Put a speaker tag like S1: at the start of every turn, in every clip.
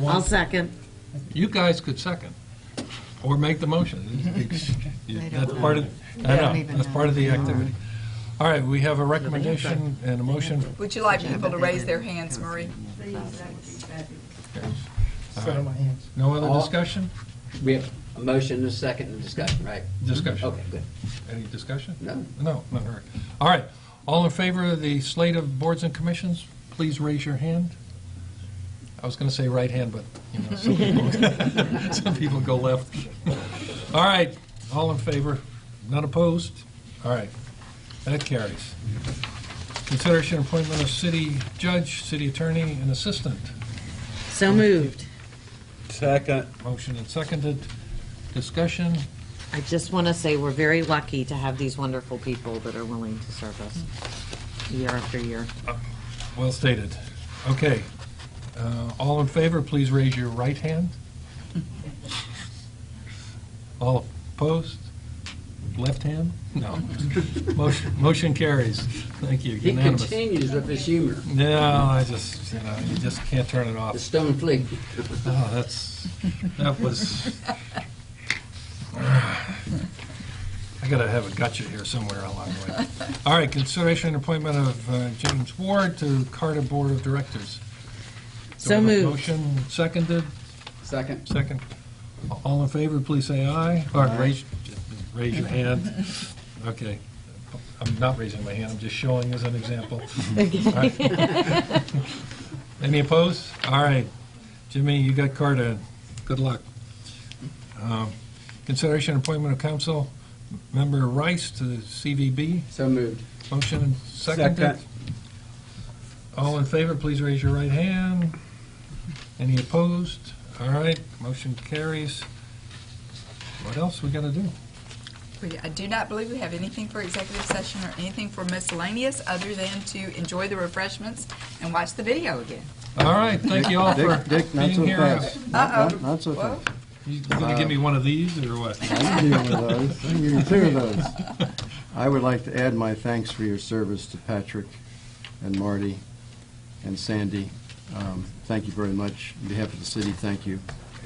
S1: I'll second.
S2: You guys could second, or make the motion. It's-
S3: They don't
S2: That's part of,
S3: They
S2: I
S3: don't
S2: know,
S3: even
S2: that's
S3: know.
S2: part of the activity. All right, we have a recommendation and a motion.
S4: Would you like people to raise their hands, Marie?
S1: Show my hands.
S2: No other
S5: All-
S2: discussion?
S5: We have a motion and a second and discussion, right?
S2: Discussion.
S5: Okay, good.
S2: Any discussion?
S5: No.
S2: No, not heard. All right, all in favor of the slate of boards and commissions, please raise your hand. I was going to say right hand, but, you know, some people, some people go left. All right, all in favor, none opposed? All right, that carries. Consideration appointment of city judge, city attorney, and assistant.
S1: So moved.
S6: Second.
S2: Motion and seconded. Discussion?
S1: I just want to say we're very lucky to have these wonderful people that are willing to serve us year after year.
S2: Well stated. Okay. Uh, All in favor, please raise your right hand. All opposed? Left hand? No. Motion Motion carries. Thank you.
S5: He
S2: Unanimous.
S5: continues with his humor,
S2: No, I just, you know, you just can't turn it off.
S5: the stone flea.
S2: Oh, that's, that was, I gotta have a gotcha here somewhere along the way. All right, consideration and appointment of uh, James Ward to Carter Board of Directors. Do I
S1: So
S2: have a
S1: moved.
S2: Motion seconded,
S5: Second.
S2: second. All in favor, please say aye, or raise, raise your hand. Okay. I'm not raising my hand, I'm just showing as an example. All right. Any opposed? All right. Jimmy, you got Carter. Good luck. Um, Consideration and appointment of council member Rice to the CVB.
S5: So moved.
S2: Motion and seconded.
S6: Second.
S2: All in favor, please raise your right hand. Any opposed? All right, motion carries. What else we got to do?
S4: We- I do not believe we have anything for executive session or anything for miscellaneous, other than to enjoy the refreshments and watch the video again.
S2: All right, thank you all for
S6: Dick, Dick, not
S2: being
S6: so
S2: here.
S6: fast.
S4: Uh-oh.
S6: Not- Not so
S4: Well,
S6: fast.
S2: You gonna give me one of these, or what?
S6: I can deal with those. I can give you two of those. I would like to add my thanks for your service to Patrick and Marty and Sandy. Um, Thank you very much. On behalf of the city, thank you.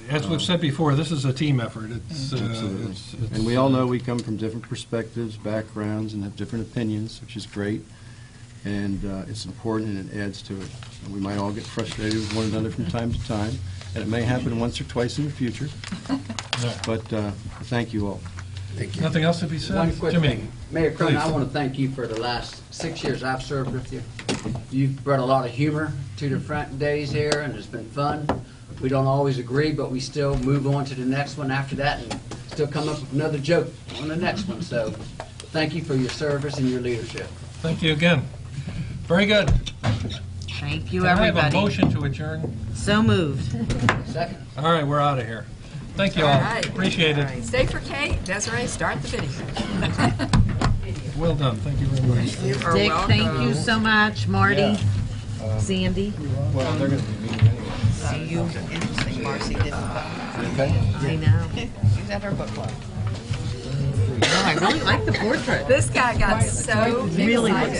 S2: As we've said before, this is a team effort. It's, uh,
S6: Absolutely.
S2: it's- it's-
S6: And we all know we come from different perspectives, backgrounds, and have different opinions, which is great. And uh, it's important and it adds to it. And We might all get frustrated with one another from time to time, and it may happen once or twice in the future. But uh, thank you all.
S5: Thank
S2: Nothing else to be
S5: One
S2: said?
S5: quick
S2: Jimmy?
S5: thing. Mayor Cronin, I
S2: please.
S5: want to thank you for the last six years I've served with you. You've brought a lot of humor to the front days here, and it's been fun. We don't always agree, but we still move on to the next one after that and still come up with another joke on the next one. So thank you for your service and your leadership.
S2: Thank you again. Very good.
S1: Thank you,
S2: Can I have a
S1: everybody.
S2: motion to adjourn?
S1: So moved.
S5: Second.
S2: All right, we're out of here. Thank you all.
S4: All right.
S2: Appreciate it.
S4: Stay for Kate, Desiree, start the video.
S2: Well done, thank you very much.
S4: You are
S1: Dick,
S4: welcome.
S1: thank you so much. Marty, Sandy.
S3: See you. Interesting, Marcy didn't, but
S1: I know.
S3: she's at her book club.
S1: No, I really like the portrait.
S4: This guy got so
S1: Really
S4: excited.